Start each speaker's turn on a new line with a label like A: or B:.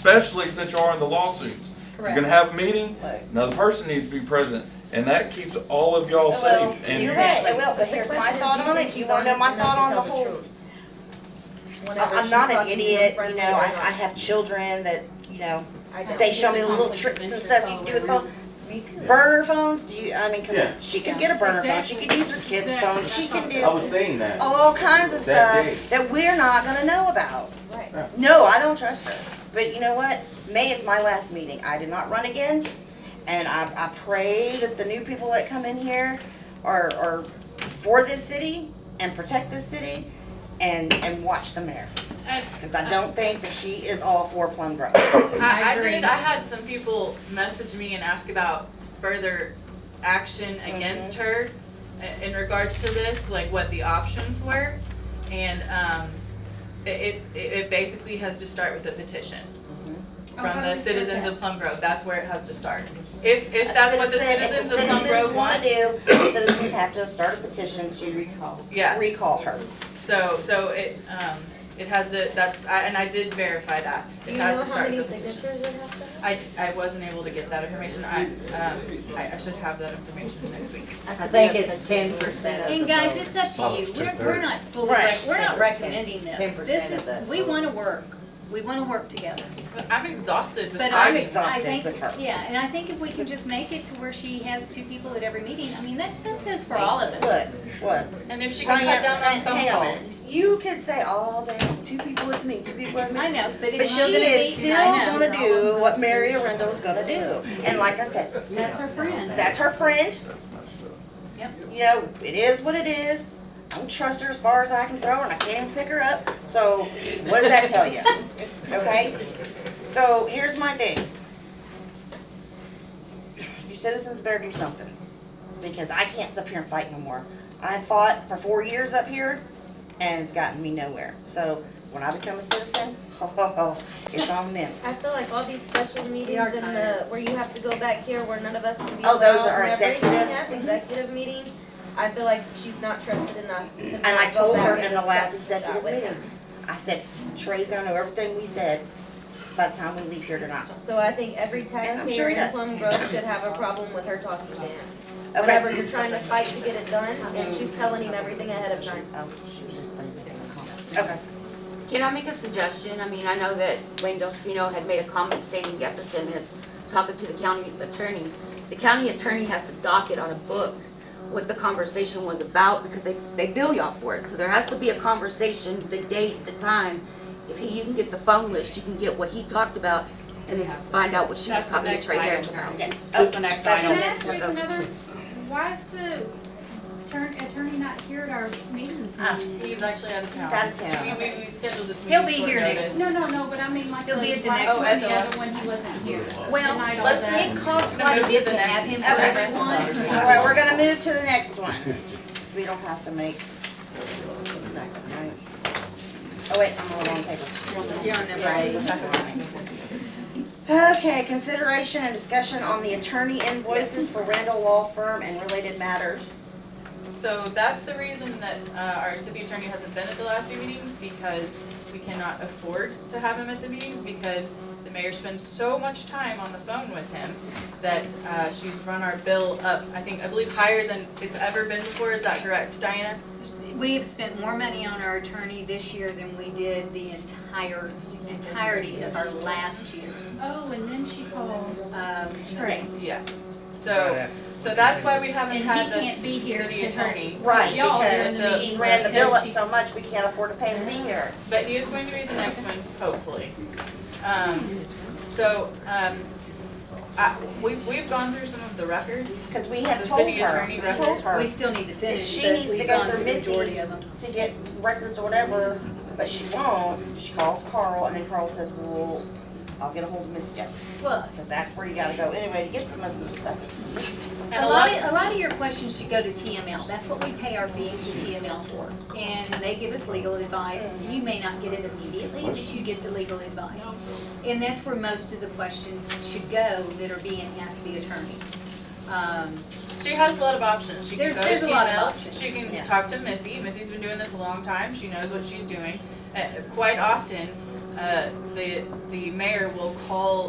A: especially since you are in the lawsuits. If you're gonna
B: Correct.
A: have a meeting,
C: Right.
A: another person needs to be present, and that keeps all of y'all
C: Well,
A: safe. And
C: You're
A: you-
C: right, it will, but here's my thought on it, you wanna know my thought on the whole. I- I'm not an idiot, you know, I, I have children that, you know, they show me the little tricks and stuff you can do with phone.
B: Me too.
C: Burner phones, do you, I mean, come
D: Yeah.
C: on, she could get a burner phone, she could use her kid's phone, she can
D: I
C: do
D: was saying that.
C: all kinds of
D: That
C: stuff
D: day.
C: that we're not gonna know about.
B: Right.
C: No, I don't trust her. But you know what? May is my last meeting. I did not run again. And I, I pray that the new people that come in here are, are for this city and protect this city and, and watch the mayor. Because I don't think that she is all for Plum Grove.
E: I,
B: I
E: I
B: agree.
E: did, I had some people message me and ask about further action against her i- in regards to this, like what the options were. And, um, it, it, it basically has to start with a petition
B: Oh, how
E: from
B: do we start
E: the citizens
B: that?
E: of Plum Grove, that's where it has to start. If, Mm-hmm. if that's what the citizens of Plum Grove want,
C: If the citizens wanna do, the citizens have to start a petition to
E: yeah,
C: recall her.
E: so, so it, um, it has to, that's, I, and I did verify that.
B: Do
E: It
B: you
E: has
B: know
E: to
B: how
E: start
B: many
E: with a petition.
B: signatures it has to have?
E: I, I wasn't able to get that information, I, um, I, I should have that information next week.
F: I think it's ten percent of
G: And
F: the
G: guys,
F: vote.
G: it's up to you, we're, we're not fully,
C: Right.
G: rec- we're not
F: 10%.
G: recommending this,
F: 10%
G: this
F: of the
G: is, we
F: vote.
G: wanna work, we wanna work together.
E: But I'm exhausted with
G: But
C: I'm
E: arguing.
C: exhausted.
G: I think-
C: with her.
G: Yeah, and I think if we can just make it to where she has two people at every meeting, I mean, that's, that goes for all of
C: Look,
G: us.
C: what?
E: And if she can cut down on phone
C: Hang on.
E: calls.
C: You could say all day, two people with me, two people with me.
G: I know, but
C: But
G: it's
C: she
G: gonna be,
C: is still
G: I know.
C: gonna do what Mary Arundel's gonna do. And like I said,
G: That's her friend.
C: that's her friend.
G: Yep.
C: You know, it is what it is. I don't trust her as far as I can throw her and I can't pick her up. So what does that tell you? Okay? So here's my thing. You citizens better do something. Because I can't sit up here and fight no more. I fought for four years up here and it's gotten me nowhere. So when I become a citizen, ho ho ho, it's on them.
B: I feel like all these special meetings
G: are
B: and the,
G: tired.
B: where you have to go back here where none of us can be
C: Oh,
B: involved
C: those are
B: and everything,
C: executive. Mm-hmm.
B: yes, executive meetings. I feel like she's not trusted enough to
C: And I
B: not go
C: told
B: back
C: her
B: and
C: in the last
B: discuss it
C: executive
B: that way.
C: meeting, I said, Trey's gonna know everything we said by the time we leave here tonight.
B: So I think every taxpayer
C: he
B: in
C: does.
B: Plum Grove should have a problem with her talking to him. Whenever
C: Okay.
B: you're trying to fight to get it done and she's telling him everything ahead of time.
C: Okay,
H: Can I make a suggestion? I mean, I know that Wayne Delfino had made a comment stating after ten minutes talking to the county attorney. The county attorney has to docket on a book what the conversation was about because they, they bill y'all for it. So there has to be a conversation, the date, the time. If he, you can get the phone list, you can get what he talked about and then just find out what she
E: That's
H: was
E: the
H: talking to
E: next
H: Trey
E: item.
H: Harris about.
C: yes.
H: That's the next
C: That's
H: item.
C: the
F: Can I
C: next
F: ask
C: one.
F: you another, why is the turn, attorney not here at our meetings?
C: Ah.
E: He's actually out of town.
C: He's out of town.
E: We, we, we scheduled this meeting.
G: He'll be
E: short
G: here next-
E: notice.
F: No, no, no, but I mean, like,
G: He'll be at the
F: why
G: next
F: is
E: one.
F: the other one, he wasn't here.
G: Well,
F: Tonight all
G: let's,
F: day.
G: it costs
E: Gonna
G: quite a
E: move
G: bit
E: to
G: to
E: the
G: have
E: next.
G: him for
C: Okay.
G: everyone.
C: All right, we're gonna move to the next one, 'cause we don't have to make. Oh, wait, I'm on the wrong paper.
H: You're on number
C: Sorry,
H: eight.
C: we're talking about me. Okay, consideration and discussion on the attorney invoices for Randall Law Firm and related matters.
E: So that's the reason that, uh, our city attorney hasn't been at the last few meetings because we cannot afford to have him at the meetings because the mayor spends so much time on the phone with him that, uh, she's run our bill up, I think, I believe higher than it's ever been before. Is that correct, Diana?
G: We have spent more money on our attorney this year than we did the entire, entirety of our last year.
F: Oh, and then she calls.
G: Um,
F: Trey.
E: Yeah. So, so that's why we haven't
G: And he
E: had the
G: can't be here
E: city
G: to help.
E: attorney.
C: Right,
G: Y'all are in
E: the
C: because she
E: meeting,
C: ran the
G: so
C: bill up
G: she-
C: so much, we can't afford to pay to be here.
E: But he is going to read the next one, hopefully. Um, so, um, I, we, we've gone through some of the records.
C: Because we have
E: The
C: told
E: city
C: her,
E: attorney
C: we told
E: records.
C: her
G: We still need to finish,
C: she
G: but
C: needs to
G: we've
C: go
G: gone
C: through
G: through the
C: Missy.
G: majority of them.
C: to get records or whatever, but she won't. She calls Carl and then Carl says, well, I'll get a hold of Miss Jeff.
G: Well,
C: Because that's where you gotta go anyway to get the most of the stuff.
E: And
G: a lot, of- a lot of your questions should go to TML, that's what we pay our fees to TML for. And they give us legal advice, you may not get it immediately, but you get the legal advice. And that's where most of the questions should go that are being asked the attorney. Um,
E: She has a lot of options. She can
G: There's-
E: go to
G: there's a lot of
E: TNL.
G: options.
E: She
C: Yeah.
E: can talk to Missy. Missy's been doing this a long time. She knows what she's doing. Uh, quite often, uh, the, the mayor will call